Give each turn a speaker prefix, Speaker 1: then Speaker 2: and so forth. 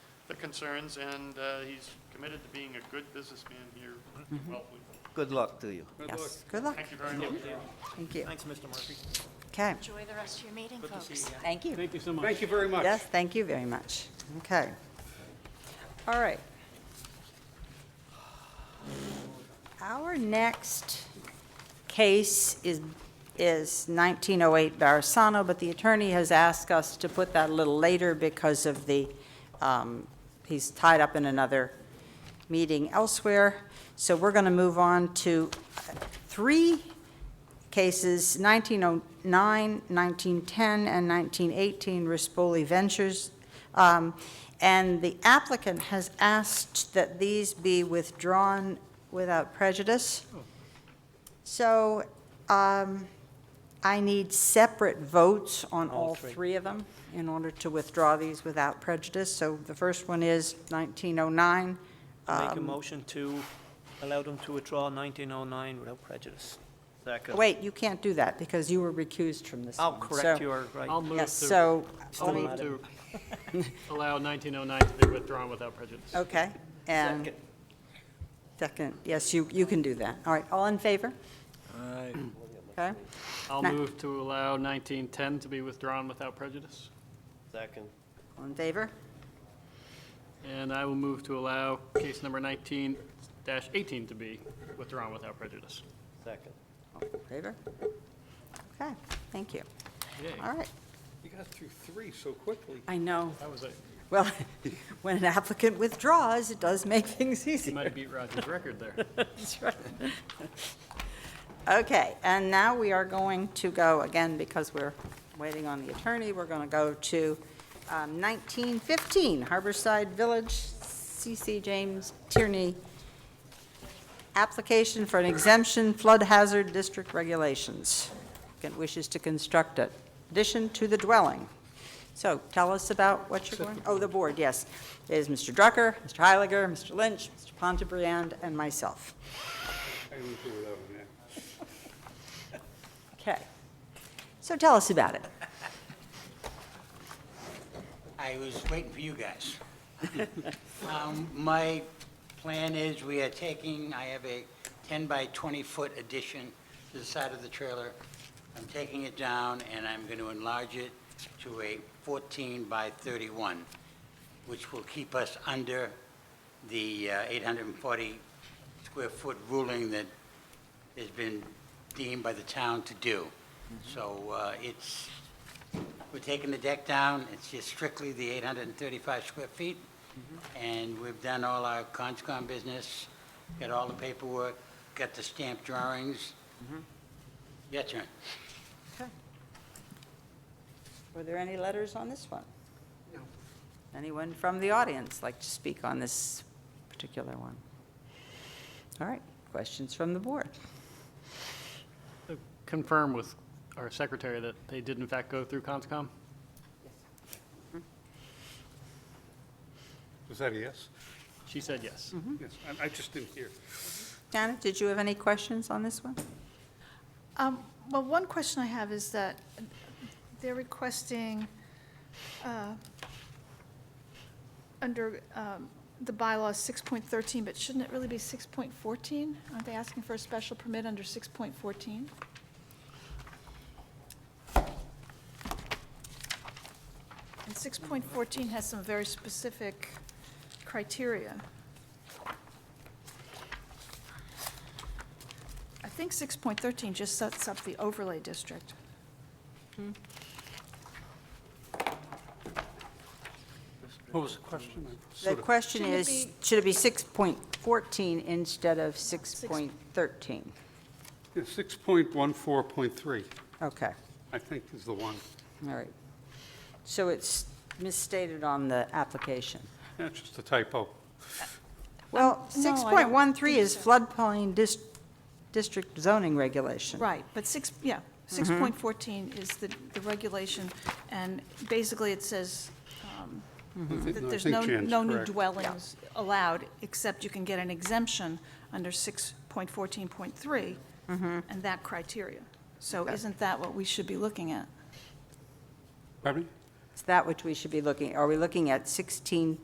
Speaker 1: the concerns, and uh, he's committed to being a good businessman here in Wellfleet.
Speaker 2: Good luck to you.
Speaker 3: Yes, good luck.
Speaker 1: Thank you very much.
Speaker 3: Thank you.
Speaker 4: Thanks, Mr. Murphy.
Speaker 3: Okay.
Speaker 5: Enjoy the rest of your meeting,
Speaker 4: Good to
Speaker 5: folks.
Speaker 4: see you.
Speaker 3: Thank you.
Speaker 6: Thank you so much.
Speaker 4: Thank you very much.
Speaker 3: Yes, thank you very much. Okay. All right. Our next case is, is 1908 Barisano, but the attorney has asked us to put that a little later because of the, um, he's tied up in another meeting elsewhere. So we're going to move on to uh, three cases 1909, 1910, and 1918 Rispoli Ventures. Um, And the applicant has asked that these be withdrawn without prejudice. So um, I need separate votes on all three of them in order to withdraw these without prejudice. So the first one is
Speaker 4: Make
Speaker 3: 1909.
Speaker 4: a
Speaker 3: um,
Speaker 4: motion to allow them to withdraw 1909 without prejudice.
Speaker 2: Second.
Speaker 3: Wait, you can't do that because you were recused from this
Speaker 4: I'll
Speaker 3: one.
Speaker 4: correct
Speaker 3: So-
Speaker 4: you, are right.
Speaker 6: I'll move
Speaker 3: Yes,
Speaker 6: to,
Speaker 3: so,
Speaker 6: I'll
Speaker 3: let me-
Speaker 6: move to Oh, allow 1909 to be withdrawn without prejudice.
Speaker 3: okay, and
Speaker 4: Second.
Speaker 3: second, yes, you, you can do that. All right, all in favor? Okay,
Speaker 6: I'll
Speaker 3: Ni-
Speaker 6: move to allow 1910 to be withdrawn without prejudice.
Speaker 2: Second.
Speaker 3: all in favor?
Speaker 6: And I will move to allow case number 19-18 to be withdrawn without prejudice.
Speaker 2: Second.
Speaker 3: All in favor? Okay, thank you.
Speaker 6: Yay.
Speaker 3: All right.
Speaker 7: You got through three so quickly.
Speaker 3: I know,
Speaker 6: That was it.
Speaker 3: well, when an applicant withdraws, it does make things
Speaker 6: You
Speaker 3: easier.
Speaker 6: might have beat Roger's record there.
Speaker 3: That's right. Okay, and now we are going to go, again, because we're waiting on the attorney, we're going to go to um, 1915 Harborside Village, C.C. James Tierney, application for an exemption flood hazard district regulations. Applicant wishes to construct a addition to the dwelling. So tell us about what you're going, oh, the board, yes. It is Mr. Drucker, Mr. Heiliger, Mr. Lynch, Mr. Pontebriand, and myself.
Speaker 7: I can do without one, yeah.
Speaker 3: Okay. So tell us about it.
Speaker 8: I was waiting for you guys. Um, My plan is we are taking, I have a 10 by 20-foot addition to the side of the trailer. I'm taking it down, and I'm going to enlarge it to a 14 by 31, which will keep us under the uh, 840-square-foot ruling that has been deemed by the town to do. So uh, it's, we're taking the deck down, it's just strictly the 835 square feet, and we've done all our conscom business, got all the paperwork, got the stamped drawings. Your turn.
Speaker 3: Were there any letters on this one? No. Anyone from the audience like to speak on this particular one? All right, questions from the board?
Speaker 6: Confirm with our secretary that they did in fact go through CONSCOM?
Speaker 7: Was that a yes?
Speaker 6: She said yes.
Speaker 7: Hmm? Yes, I- I just didn't hear.
Speaker 3: Janet, did you have any questions on this one?
Speaker 9: Um, Well, one question I have is that they're requesting, uh, under um, the bylaw 6.13, but shouldn't it really be 6.14? Aren't they asking for a special permit under 6.14? And 6.14 has some very specific criteria. I think 6.13 just sets up the overlay district.
Speaker 7: What was the question? I
Speaker 3: The
Speaker 7: sort of-
Speaker 3: question
Speaker 9: Shouldn't it
Speaker 3: is,
Speaker 9: be-
Speaker 3: should it be 6.14 instead of 6.13?
Speaker 7: Yeah, 6.14.3,
Speaker 3: Okay,
Speaker 7: I think is the one.
Speaker 3: all right. So it's misstated on the application.
Speaker 7: That's just a typo.
Speaker 3: Well,
Speaker 9: no, I don't
Speaker 3: 6.13 is
Speaker 9: think
Speaker 3: floodplain dis- district zoning regulation.
Speaker 9: Right, but six, yeah, 6.14 is the, the regulation, and basically it says um,
Speaker 7: I
Speaker 9: that there's
Speaker 7: think
Speaker 9: no,
Speaker 7: Jan's
Speaker 9: no new
Speaker 7: correct.
Speaker 9: dwellings allowed, except you can get an exemption under 6.14.3 and that criteria. So isn't that what we should be looking at?
Speaker 7: Pardon me?
Speaker 3: It's that which we should be looking, are we looking at 16,